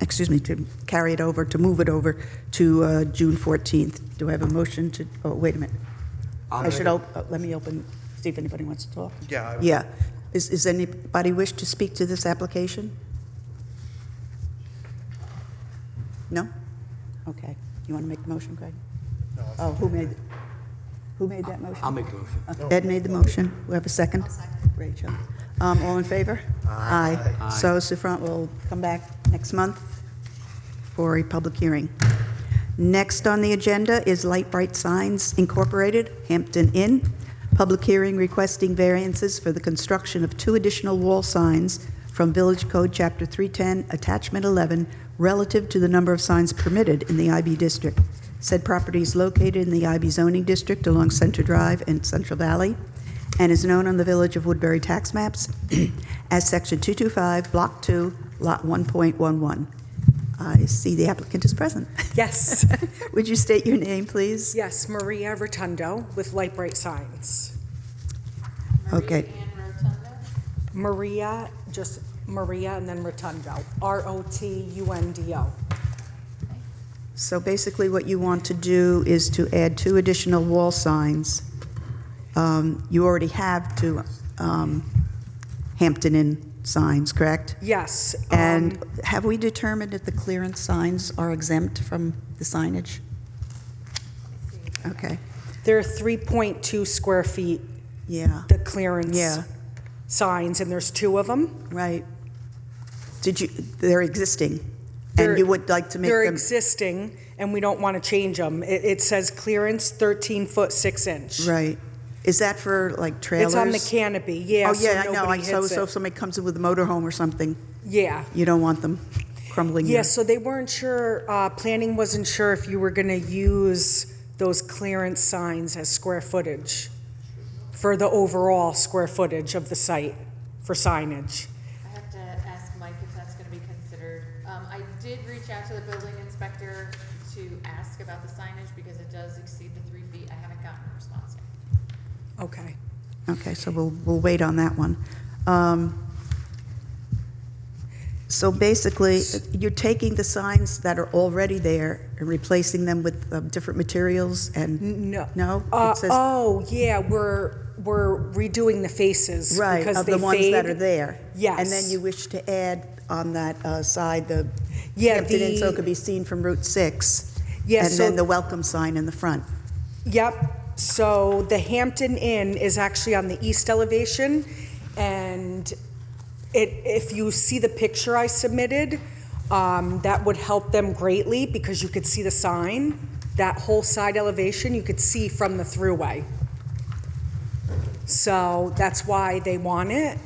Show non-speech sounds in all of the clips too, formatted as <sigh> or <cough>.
excuse me, to carry it over, to move it over to uh, June 14th. Do I have a motion to, oh, wait a minute. I'll I should, make- op- uh, let me open, see if anybody wants to talk. Yeah, I- Yeah. Is, is anybody wish to speak to this application? No? Okay. You want to make the motion, Greg? No. Oh, who made, who made that motion? I'll make the motion. Ed made the motion. We have a 2nd Rachel. Um, all in favor? Aye. So Sufran will come back next month for a public hearing. Next on the agenda is Light Bright Signs Incorporated, Hampton Inn. Public hearing requesting variances for the construction of two additional wall signs from Village Code Chapter 310, Attachment 11, relative to the number of signs permitted in the IB district. Said property is located in the IB zoning district along Center Drive and Central Valley, and is known on the Village of Woodbury tax maps <clears throat> as Section 225, Block 2, Lot 1.11. I see the applicant is present. <laughs> Yes, Would you state your name, please? yes, Maria Rotundo with Light Bright Signs. Okay. Maria, just Maria and then Rotundo, R-O-T-U-N-D-O. So basically, what you want to do is to add two additional wall signs. Um, You already have two um, Hampton Inn signs, correct? Yes. um, And have we determined if the clearance signs are exempt from the signage? Okay, They're 3.2 square feet, yeah, the clearance Yeah. signs, and there's two of them. right. Did you, they're existing, They're- and you would like to make They're them... existing, and we don't want to change them. It, it says clearance 13 foot 6 inch. Right. Is that for, like, trailers? It's on the canopy, yeah, Oh, so yeah, I know, I nobody so hits so if it. somebody comes in with a motorhome or something, Yeah. you don't want them crumbling. your- Yeah, so they weren't sure, uh, planning wasn't sure if you were gonna use those clearance signs as square footage for the overall square footage of the site for signage. I have to ask Mike if that's gonna be considered. Um, I did reach out to the building inspector to ask about the signage because it does exceed the three feet. I haven't gotten a response yet. Okay. Okay, so we'll, we'll wait on that one. Um, So basically, you're taking the signs that are already there and replacing them with um, different materials and, No. No? Uh, It says- oh, yeah, we're, we're redoing the faces. right, because of they the ones that fade. are there? And then Yes. you wish to add on that uh, side, the Yeah, Hampton Inn, so it the- could be seen from Route 6? Yeah, And then so- the welcome sign in the front? Yep, so the Hampton Inn is actually on the east elevation, and it, if you see the picture I submitted, um, that would help them greatly, because you could see the sign, that whole side elevation, you could see from the thruway. So that's why they want it,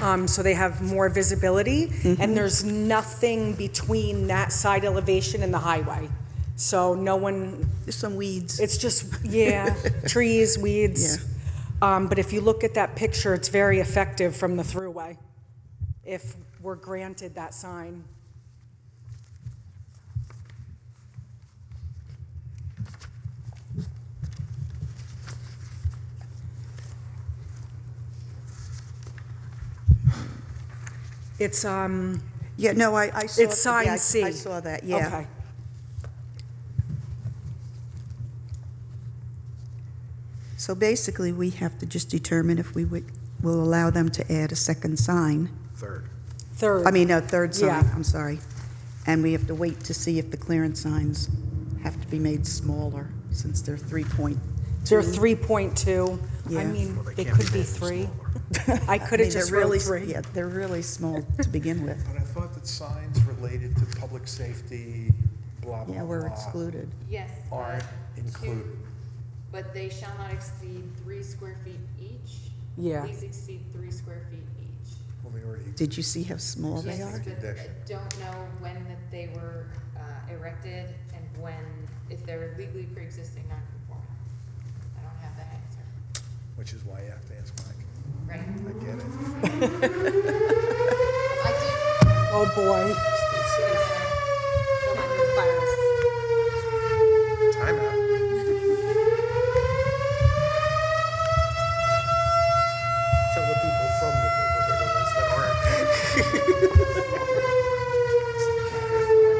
um, so they have more visibility. And there's nothing between that side elevation and the highway. So no one, There's some weeds. it's just, <laughs> yeah, trees, weeds. Um, but if you look at that picture, it's very effective from the thruway, if we're granted that sign. It's, um, Yeah, no, I, I saw. It's yeah, sign I- C. I saw that, yeah. Okay. So basically, we have to just determine if we would, will allow them to add a second sign, Third. Third. I mean, a third sign, Yeah. I'm sorry. And we have to wait to see if the clearance signs have to be made smaller, since they're three point. They're 3.2. Yeah. I mean, Well, they they can't be could be that three. I could have just really wrote s- three. Yeah, they're really small to begin with. But I thought that signs related to public safety, blah, blah, Yeah, we're blah, excluded. Yes. uh, Aren't two, included. But they shall not exceed three square feet each. Yeah. Please exceed three square feet each. Well, they already, Did you see how small they Yes, are? but I Condition. don't know when that they were uh, erected and when, if they're legally pre-existing non-conforming. I don't have that answer, which is why you have to ask Mike. right? I get it. I did, Oh, boy.